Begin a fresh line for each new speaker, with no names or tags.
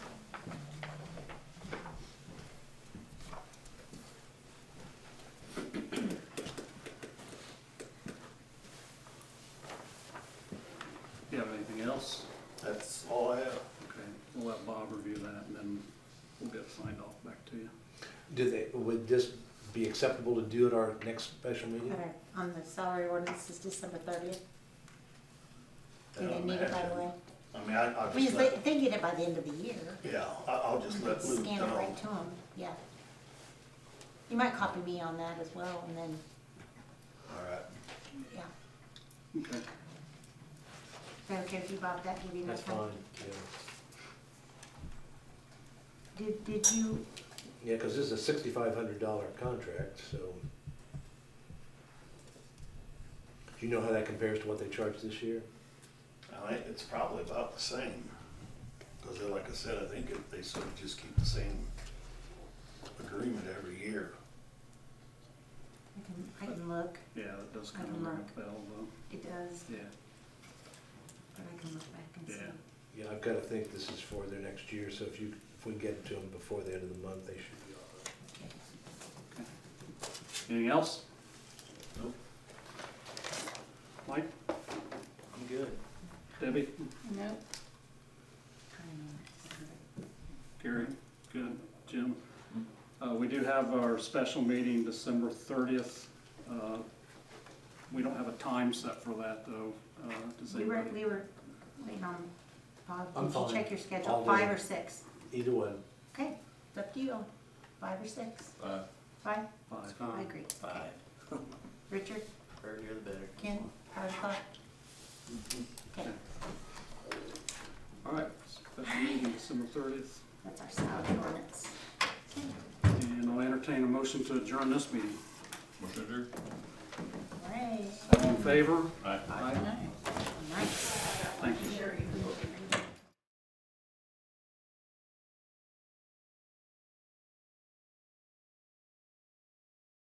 Anything else?
That's all I have.
Okay, we'll let Bob review that and then we'll get signed off back to you.
Do they, would this be acceptable to do at our next special meeting?
Okay, on the salary ordinance is December thirtieth. Do
I
they
don't
need it by
have
the
to.
way?
I mean, I, I'll
We,
just let,
if they get it by the end of the year,
yeah, I- I'll just let Luke
scan it
know.
right to them, yeah. You might copy me on that as well, and then,
All right.
yeah.
Okay,
Is that okay if you bought that, give you enough time?
yeah.
Did, did you,
Yeah, because this is a sixty-five hundred dollar contract, so. Do you know how that compares to what they charged this year?
I think it's probably about the same. Cause then, like I said, I think if they sort of just keep the same agreement every year.
I can, I can look,
yeah, that does
I
kind of
can
ring
look.
a bell though.
it does,
Yeah.
but I can look back and see.
Yeah.
Yeah, I've got to think this is for their next year, so if you, if we get it to them before the end of the month, they should be all right.
Okay.
Anything else?
Nope.
Mike,
I'm good.
Debbie,
Nope. I
Gary, good, Jim? Uh, we do have our special meeting December thirtieth. Uh, we don't have a time set for that though. Uh, does
don't know. We were,
anybody?
we were waiting on,
I'm
Bob, did you
fine.
check your schedule,
I'll
five
do
or
it.
six?
Either one,
Okay, it's up to you, five or six?
Five.
Five?
Five.
I agree.
Five.
Richard,
Earlier the better.
Ken, five o'clock?
Mm-hmm.
Okay,
All right, special meeting December thirtieth.
that's our salary ordinance.
And I'll entertain a motion to adjourn this meeting.
Motion adjourned.
All right.
All in favor?
Aye.
Aye.